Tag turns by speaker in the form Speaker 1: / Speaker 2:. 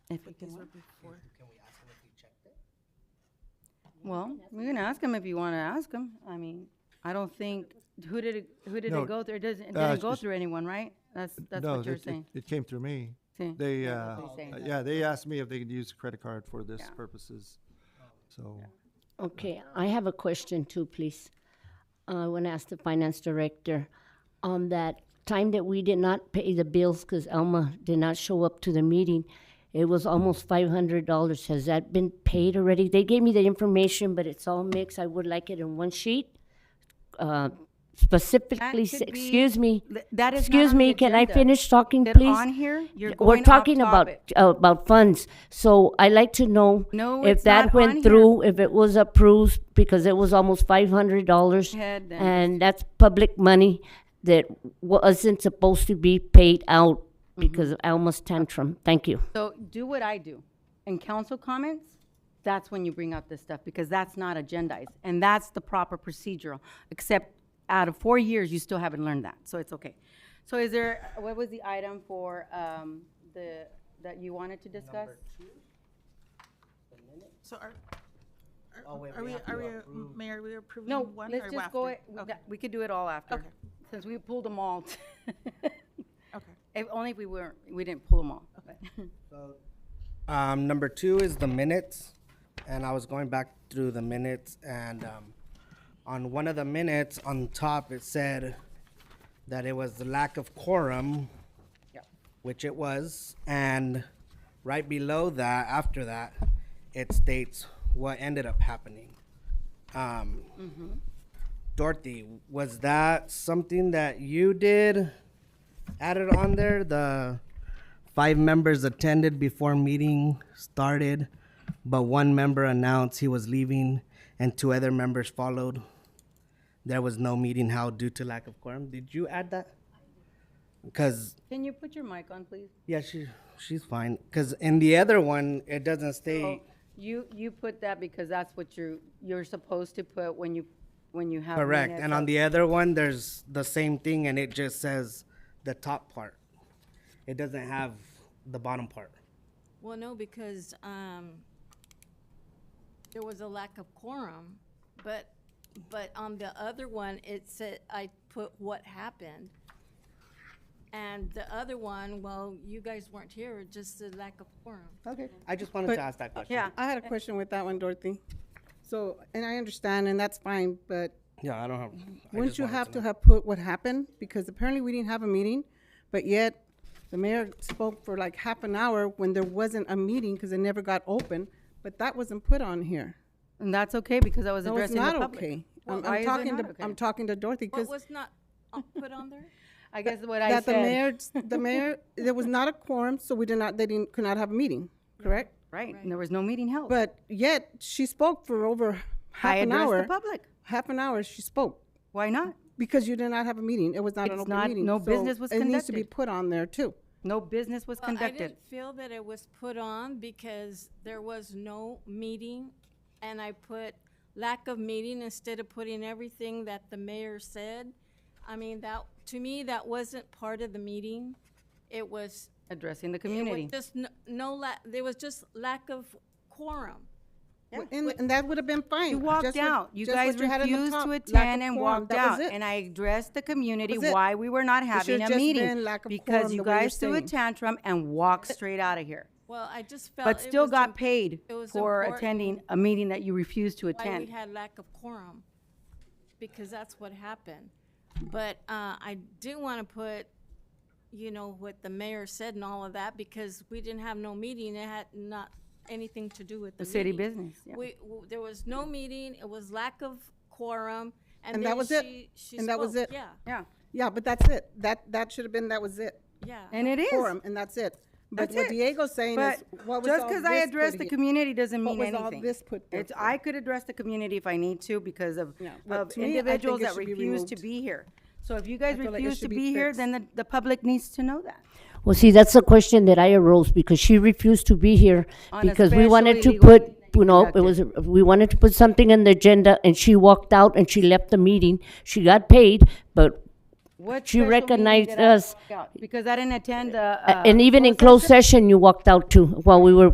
Speaker 1: If we can.
Speaker 2: before.
Speaker 3: Can we ask him if he checked it?
Speaker 1: Well, we can ask him if you want to ask him. I mean, I don't think, who did it, who did
Speaker 4: No,
Speaker 1: it go through? It doesn't, it
Speaker 4: uh,
Speaker 1: didn't go
Speaker 4: it's-
Speaker 1: through anyone, right? That's, that's
Speaker 4: No,
Speaker 1: what you're
Speaker 4: it- it-
Speaker 1: saying.
Speaker 4: It came through me.
Speaker 1: See?
Speaker 4: They,
Speaker 1: That's
Speaker 4: uh,
Speaker 1: what he's saying.
Speaker 4: yeah, they asked me if they could use a credit card for this
Speaker 1: Yeah.
Speaker 4: purposes. So,
Speaker 5: Okay, I have a question too, please. Uh, I want to ask the finance director on that time that we did not pay the bills because Alma did not show up to the meeting. It was almost five hundred dollars. Has that been paid already? They gave me the information, but it's all mixed. I would like it in one sheet. Uh, Specifically, s-
Speaker 1: should be-
Speaker 5: excuse me.
Speaker 1: Th- that is not
Speaker 5: Excuse
Speaker 1: on the
Speaker 5: me, can I
Speaker 1: agenda.
Speaker 5: finish talking,
Speaker 1: That
Speaker 5: please?
Speaker 1: on here, you're going
Speaker 5: We're
Speaker 1: off
Speaker 5: talking about,
Speaker 1: topic.
Speaker 5: uh, about funds, so i like to know
Speaker 1: No,
Speaker 5: if
Speaker 1: it's not
Speaker 5: that
Speaker 1: on here.
Speaker 5: went through, if it was approved, because it was almost five hundred dollars.
Speaker 1: Head then.
Speaker 5: And that's public money that wasn't supposed to be paid out
Speaker 1: Mm-hmm.
Speaker 5: because of Alma's tantrum. Thank you.
Speaker 1: So do what I do. In council comments, that's when you bring up this stuff, because that's not agendized, and that's the proper procedural. Except out of four years, you still haven't learned that, so it's okay. So is there, what was the item for, um, the, that you wanted to discuss?
Speaker 2: So are, are-
Speaker 3: Oh, wait,
Speaker 2: are
Speaker 3: we
Speaker 2: we,
Speaker 3: have to
Speaker 2: are
Speaker 3: approve.
Speaker 2: we, Mayor, are we approving
Speaker 1: No,
Speaker 2: one or
Speaker 1: let's just go,
Speaker 2: after?
Speaker 1: it- we
Speaker 2: Okay,
Speaker 1: got- we could do it all after, since we pulled them all.
Speaker 2: okay.
Speaker 1: If, only if we weren't, we didn't pull them all. but-
Speaker 3: Um, number two is the minutes, and I was going back through the minutes, and, um, on one of the minutes, on top, it said that it was the lack of quorum, which it was, and right below that, after that, it states what ended up happening. Um, Dorothy, was that something that you did, added on there, the Five members attended before meeting started, but one member announced he was leaving and two other members followed. There was no meeting held due to lack of quorum. Did you add that? Because,
Speaker 1: Can you put your mic on, please?
Speaker 3: yeah, she, she's fine. Because in the other one, it doesn't state,
Speaker 1: Oh, You, you put that because that's what you're, you're supposed to put when you, when you have.
Speaker 3: correct.
Speaker 1: minutes
Speaker 3: And on
Speaker 1: of-
Speaker 3: the other one, there's the same thing and it just says the top part. It doesn't have the bottom part.
Speaker 6: Well, no, because um, there was a lack of quorum, but, but on the other one, it said, I put what happened. And the other one, well, you guys weren't here, just the lack of quorum.
Speaker 3: Okay, I just wanted
Speaker 7: But-
Speaker 3: to ask that question.
Speaker 1: Yeah,
Speaker 7: I had a question with that one, Dorothy. So, and I understand, and that's fine, but
Speaker 3: Yeah, I don't have. I
Speaker 7: wouldn't
Speaker 3: just
Speaker 7: you
Speaker 3: wanted
Speaker 7: have
Speaker 3: know.
Speaker 7: to have put what happened? Because apparently we didn't have a meeting, but yet the mayor spoke for like half an hour when there wasn't a meeting because it never got open, but that wasn't put on here.
Speaker 1: and that's okay because I was
Speaker 7: No, it's
Speaker 1: addressing the
Speaker 7: not
Speaker 1: public.
Speaker 7: okay.
Speaker 1: Well,
Speaker 7: I'm-
Speaker 1: why is
Speaker 7: I'm
Speaker 1: it
Speaker 7: talking
Speaker 1: not
Speaker 7: to,
Speaker 1: okay?
Speaker 7: I'm talking to Dorothy
Speaker 6: What
Speaker 7: because
Speaker 6: was not uh, put on there?
Speaker 1: I guess what I
Speaker 7: that the
Speaker 1: said,
Speaker 7: mayor, the mayor, there was not a quorum, so we did not, they didn't, could not have a meeting, correct?
Speaker 1: right, and there was no meeting held.
Speaker 7: But yet she spoke for over half
Speaker 1: I
Speaker 7: an
Speaker 1: addressed
Speaker 7: hour.
Speaker 1: the public.
Speaker 7: Half an hour she spoke.
Speaker 1: Why not?
Speaker 7: Because you did not have a meeting. It was not an
Speaker 1: It's
Speaker 7: open
Speaker 1: not-
Speaker 7: meeting.
Speaker 1: no
Speaker 7: so
Speaker 1: business was
Speaker 7: It needs to be
Speaker 1: conducted.
Speaker 7: put on there too.
Speaker 1: No business was
Speaker 6: Well, I
Speaker 1: conducted.
Speaker 6: didn't feel that it was put on because there was no meeting, and I put lack of meeting instead of putting everything that the mayor said. I mean, that, to me, that wasn't part of the meeting. It was,
Speaker 1: Addressing the
Speaker 6: it
Speaker 1: community.
Speaker 6: was just no, no la, there was just lack of quorum.
Speaker 7: And, and that would have been fine.
Speaker 1: You walked
Speaker 7: just what-
Speaker 1: out. You
Speaker 7: just
Speaker 1: guys
Speaker 7: what you had on the
Speaker 1: refused
Speaker 7: top,
Speaker 1: to
Speaker 7: lack of
Speaker 1: attend and
Speaker 7: quorum.
Speaker 1: walked
Speaker 7: That was
Speaker 1: out.
Speaker 7: it.
Speaker 1: And I addressed the community
Speaker 7: was it.
Speaker 1: why we were not having
Speaker 7: should've
Speaker 1: a
Speaker 7: just
Speaker 1: meeting.
Speaker 7: been lack of quorum,
Speaker 1: Because
Speaker 7: the
Speaker 1: you
Speaker 7: way you're
Speaker 1: guys threw a
Speaker 7: saying.
Speaker 1: tantrum and walked straight out of here.
Speaker 6: Well, I just felt.
Speaker 1: But
Speaker 6: it
Speaker 1: still
Speaker 6: was
Speaker 1: got
Speaker 6: imp-
Speaker 1: paid
Speaker 6: it was
Speaker 1: for
Speaker 6: important
Speaker 1: attending a meeting that you refused to
Speaker 6: Why we
Speaker 1: attend.
Speaker 6: had lack of quorum, because that's what happened. But, uh, I do wanna put, you know, what the mayor said and all of that, because we didn't have no meeting, it had not anything to do with the
Speaker 1: The city
Speaker 6: meeting.
Speaker 1: business, yeah.
Speaker 6: We, w- there was no meeting, it was lack of quorum, and
Speaker 7: And that
Speaker 6: then
Speaker 7: was it.
Speaker 6: she, she spoke.
Speaker 7: And that was it.
Speaker 6: Yeah,
Speaker 1: Yeah,
Speaker 7: Yeah, but that's it. That, that should have been, that was it.
Speaker 6: yeah.
Speaker 1: and it is.
Speaker 7: Quorum, and that's it. But
Speaker 1: That's
Speaker 7: what
Speaker 1: it.
Speaker 7: Diego's saying
Speaker 1: But
Speaker 7: is, what was all
Speaker 1: just because I
Speaker 7: this put
Speaker 1: address the
Speaker 7: here?
Speaker 1: community doesn't
Speaker 7: What
Speaker 1: mean
Speaker 7: was all
Speaker 1: anything.
Speaker 7: this put there
Speaker 1: It's,
Speaker 7: for?
Speaker 1: I could address the community if I need to because of,
Speaker 7: No, but
Speaker 1: of
Speaker 7: to me, I think
Speaker 1: individuals
Speaker 7: it
Speaker 1: that
Speaker 7: should be
Speaker 1: refuse to
Speaker 7: removed.
Speaker 1: be here. So if you guys
Speaker 7: feel like it
Speaker 1: refuse to
Speaker 7: should be
Speaker 1: be here,
Speaker 7: fixed.
Speaker 1: then the, the public needs to know that.
Speaker 5: Well, see, that's the question that I arose because she refused to be here
Speaker 1: On a
Speaker 5: because we wanted
Speaker 1: special
Speaker 5: to
Speaker 1: legal
Speaker 5: put,
Speaker 1: meeting that you
Speaker 5: you know, it was, we wanted to put something in the agenda and she walked out and she left the meeting. She got paid, but
Speaker 1: What
Speaker 5: She
Speaker 1: special meeting
Speaker 5: recognized
Speaker 1: did I
Speaker 5: us.
Speaker 1: walk out? Because I didn't attend the. uh,
Speaker 5: And even
Speaker 1: closed
Speaker 5: in
Speaker 1: session?
Speaker 5: closed session, you walked out too while we were